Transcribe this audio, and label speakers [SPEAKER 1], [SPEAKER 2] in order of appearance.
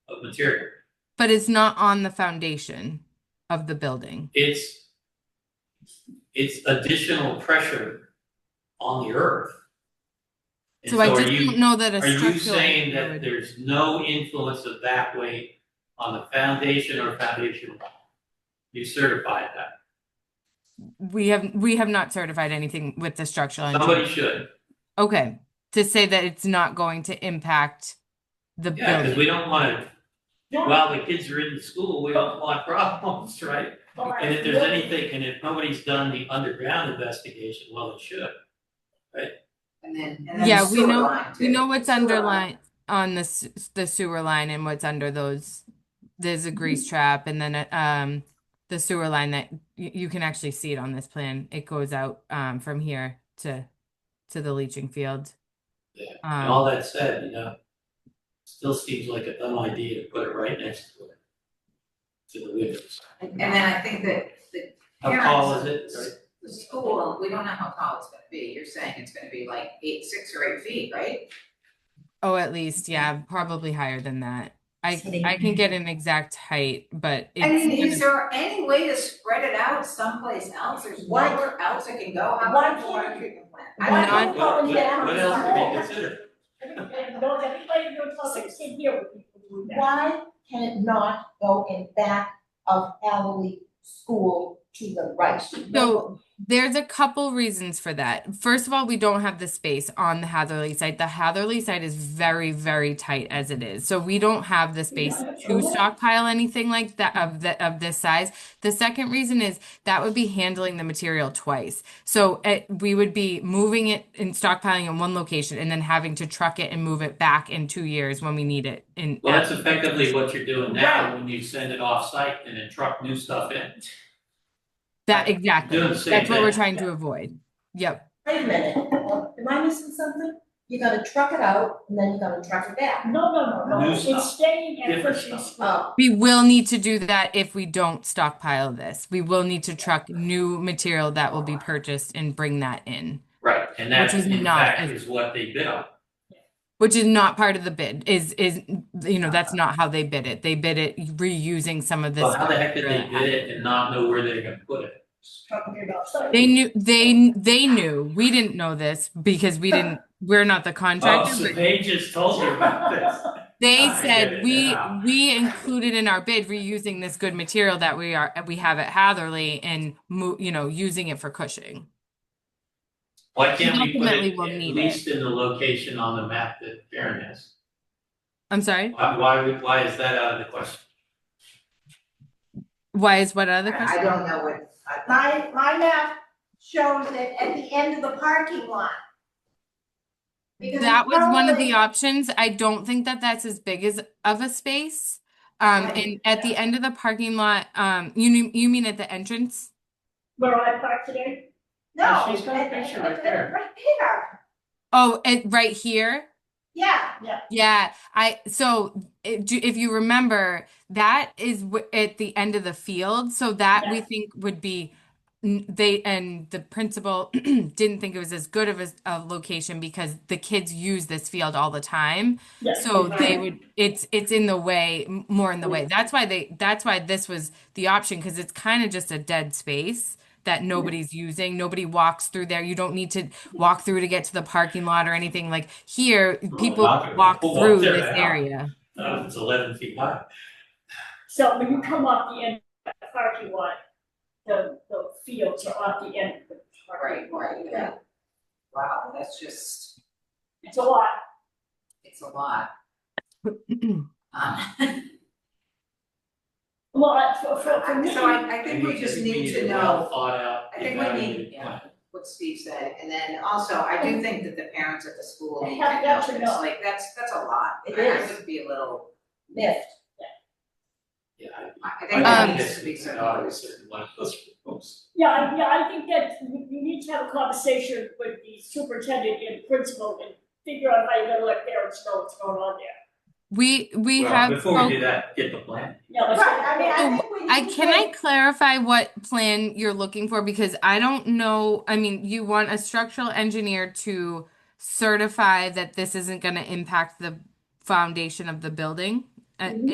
[SPEAKER 1] of material.
[SPEAKER 2] But it's not on the foundation of the building.
[SPEAKER 1] It's, it's additional pressure on the earth. And
[SPEAKER 2] So I
[SPEAKER 1] are
[SPEAKER 2] just
[SPEAKER 1] you-
[SPEAKER 2] don't know that a
[SPEAKER 1] Are
[SPEAKER 2] structural.
[SPEAKER 1] you saying
[SPEAKER 2] engineer
[SPEAKER 1] that
[SPEAKER 2] would-
[SPEAKER 1] there's no influence of that weight on the foundation or foundation wall? You certified that.
[SPEAKER 2] We have, we have not certified anything with the structural engineer.
[SPEAKER 1] Somebody should.
[SPEAKER 2] Okay, to say that it's not going to impact the
[SPEAKER 1] Yeah, because
[SPEAKER 2] building.
[SPEAKER 1] we don't want to, while the kids are in school, we don't want problems, right? And if there's anything, and if nobody's done the underground investigation, well, it should.
[SPEAKER 3] And then, and then
[SPEAKER 2] Yeah,
[SPEAKER 3] the
[SPEAKER 2] we
[SPEAKER 3] sewer
[SPEAKER 2] know,
[SPEAKER 3] line
[SPEAKER 2] we
[SPEAKER 3] too.
[SPEAKER 2] know what's
[SPEAKER 3] Sewer line.
[SPEAKER 2] underlined on the, s- the sewer line and what's under those. There's a
[SPEAKER 1] Mm-hmm.
[SPEAKER 2] grease trap and then, uh, um, the sewer line that you, you can actually see it on this plan. It goes out, um, from here to, to the leaching field.
[SPEAKER 1] Yeah, And
[SPEAKER 2] Um,
[SPEAKER 1] all that said, you know, still seems like a dumb idea to put it right next to it. To the windows.
[SPEAKER 3] And and then I think that the
[SPEAKER 1] How tall is it? Right?
[SPEAKER 3] the school, we don't know how tall it's gonna be, you're saying it's gonna be like eight, six or eight feet, right?
[SPEAKER 2] Oh, at least, yeah, probably higher than that. I I can get an exact height, but
[SPEAKER 3] I
[SPEAKER 2] it's
[SPEAKER 3] mean, is
[SPEAKER 2] gonna-
[SPEAKER 3] there any way to spread it out someplace else, there's
[SPEAKER 4] Why-
[SPEAKER 3] nowhere else it can go, how
[SPEAKER 4] Why
[SPEAKER 3] about the water
[SPEAKER 4] can't-
[SPEAKER 3] treatment plant?
[SPEAKER 4] why
[SPEAKER 3] I don't
[SPEAKER 2] can't-
[SPEAKER 3] know.
[SPEAKER 1] What-
[SPEAKER 4] Well, we
[SPEAKER 1] What
[SPEAKER 4] have
[SPEAKER 1] what else do we
[SPEAKER 4] to-
[SPEAKER 1] consider?
[SPEAKER 4] No, everybody knows how they sit here with people doing that. Why can it not go in back of Alley School to the right?
[SPEAKER 2] So- there's a couple reasons for that. First of all, we don't have the space on the Hatherley site. The Hatherley site is very, very tight as it is. So we don't have the space to
[SPEAKER 3] Oh.
[SPEAKER 2] stockpile anything like that of the of this size. The second reason is that would be handling the material twice. So it, we would be moving it and stockpiling in one location and then having to truck it and move it back in two years when we need it in
[SPEAKER 1] Well, that's effectively what you're doing now when you send it off-site and then truck new stuff in.
[SPEAKER 2] That exactly.
[SPEAKER 1] Doing the same
[SPEAKER 2] That's what we're
[SPEAKER 1] thing.
[SPEAKER 2] trying to avoid. Yep.
[SPEAKER 5] Wait a minute, am I missing something? You're gonna truck it out and then you're gonna truck it back.
[SPEAKER 4] No, no, no,
[SPEAKER 1] New
[SPEAKER 4] no,
[SPEAKER 1] stuff.
[SPEAKER 4] it's staying at
[SPEAKER 1] Different
[SPEAKER 4] Cushing
[SPEAKER 1] stuff.
[SPEAKER 4] School.
[SPEAKER 5] Oh,
[SPEAKER 2] We will need to do that if we don't stockpile this. We will need to truck new material that will be purchased and bring that in,
[SPEAKER 1] Right. And that,
[SPEAKER 2] Which is
[SPEAKER 1] in
[SPEAKER 2] not
[SPEAKER 1] fact,
[SPEAKER 2] as-
[SPEAKER 1] is what they bid on.
[SPEAKER 2] which is not part of the bid. Is is you know that's not how they bid it. They bid it reusing some of this.
[SPEAKER 1] Well, how the heck did they
[SPEAKER 2] material.
[SPEAKER 1] bid it and not know where they're gonna put it?
[SPEAKER 3] Oh.
[SPEAKER 4] Talking about something.
[SPEAKER 2] They knew they they knew. We didn't know this because we didn't. We're not the
[SPEAKER 1] Oh,
[SPEAKER 2] contractor.
[SPEAKER 1] so
[SPEAKER 2] but
[SPEAKER 1] they just told her about this.
[SPEAKER 2] They
[SPEAKER 1] I get
[SPEAKER 2] said
[SPEAKER 1] it
[SPEAKER 2] we
[SPEAKER 1] now.
[SPEAKER 2] we included in our bid reusing this good material that we are we have at Hatherley and mo- you know using it for Cushing.
[SPEAKER 1] Why can't we put
[SPEAKER 2] Ultimately,
[SPEAKER 1] it
[SPEAKER 2] we'll
[SPEAKER 1] at
[SPEAKER 2] need
[SPEAKER 1] least in the location on the map that Karen has?
[SPEAKER 2] I'm sorry.
[SPEAKER 1] Why, why, would- why is that out of the question?
[SPEAKER 2] Why is what other
[SPEAKER 3] I-
[SPEAKER 2] question?
[SPEAKER 3] I don't know what,
[SPEAKER 4] My,
[SPEAKER 3] I-
[SPEAKER 4] my map shows it at the end of the parking lot. Because
[SPEAKER 2] That was one of
[SPEAKER 4] normally-
[SPEAKER 2] the options. I don't think that that's as big as of a space. Um,
[SPEAKER 4] Right,
[SPEAKER 2] and at the end of the parking lot, um, you mean, you mean at the entrance?
[SPEAKER 4] Where I parked today?
[SPEAKER 1] Yeah,
[SPEAKER 4] No.
[SPEAKER 1] she's got a
[SPEAKER 4] at-
[SPEAKER 1] picture
[SPEAKER 4] at-
[SPEAKER 1] right
[SPEAKER 4] at-
[SPEAKER 1] there.
[SPEAKER 4] Right there,
[SPEAKER 2] Oh, it right here.
[SPEAKER 4] yeah, yeah.
[SPEAKER 2] Yeah, I so it, do- if you remember, that is w at the end of the field. So that we think would be n- they and the principal didn't think it was as good of a, a location because the kids use this field all the time.
[SPEAKER 4] yeah.
[SPEAKER 2] So they would, it's, it's in the way, m- more in the way. That's why they, that's why this was the option, because it's kind of just a dead space that nobody's using. Nobody walks through there. You don't need to walk through to get to the parking lot or anything. Like here, people
[SPEAKER 1] not gonna
[SPEAKER 2] walk
[SPEAKER 1] walk
[SPEAKER 2] through
[SPEAKER 1] there
[SPEAKER 2] this
[SPEAKER 1] now.
[SPEAKER 2] area.
[SPEAKER 1] Uh, it's eleven feet high.
[SPEAKER 4] So when you come off the end of the parking lot, the, the fields are off the end of the
[SPEAKER 3] right,
[SPEAKER 4] parking lot.
[SPEAKER 3] right, yeah. Wow, that's just,
[SPEAKER 4] It's a lot.
[SPEAKER 3] it's a lot. Um,
[SPEAKER 4] Well, for, for, for me,
[SPEAKER 3] So I, I think we just need to know
[SPEAKER 1] Thought out.
[SPEAKER 3] I think we need-
[SPEAKER 1] evaluated
[SPEAKER 3] yeah.
[SPEAKER 1] plan.
[SPEAKER 3] what Steve said, and then also, I do think that the parents at the school need to
[SPEAKER 4] Have
[SPEAKER 3] know
[SPEAKER 4] got to
[SPEAKER 3] this,
[SPEAKER 4] know.
[SPEAKER 3] like, that's, that's a lot.
[SPEAKER 5] It
[SPEAKER 3] I- I
[SPEAKER 5] is.
[SPEAKER 3] would be a little,
[SPEAKER 5] lift.
[SPEAKER 1] Yeah.
[SPEAKER 3] I
[SPEAKER 1] I-
[SPEAKER 3] think
[SPEAKER 1] I
[SPEAKER 2] Um,
[SPEAKER 3] that
[SPEAKER 1] think
[SPEAKER 3] needs
[SPEAKER 1] this
[SPEAKER 3] to be
[SPEAKER 1] is
[SPEAKER 3] some
[SPEAKER 1] not
[SPEAKER 3] notice.
[SPEAKER 1] considered one of those proposals.
[SPEAKER 4] yeah, I- yeah, I think that you, you need to have a conversation with the superintendent and principal and figure out how you're gonna let parents know what's going on there.
[SPEAKER 2] We, we
[SPEAKER 1] Well,
[SPEAKER 2] have
[SPEAKER 1] Before
[SPEAKER 2] folk-
[SPEAKER 1] we do that, get the plan.
[SPEAKER 4] Yeah, let's.
[SPEAKER 5] Right, I mean, I think we
[SPEAKER 2] I
[SPEAKER 5] need to
[SPEAKER 2] can
[SPEAKER 5] wait.
[SPEAKER 2] I clarify what plan you're looking for? Because I don't know, I mean, you want a structural engineer to certify that this isn't gonna impact the foundation of the building? Uh,
[SPEAKER 5] Mhm.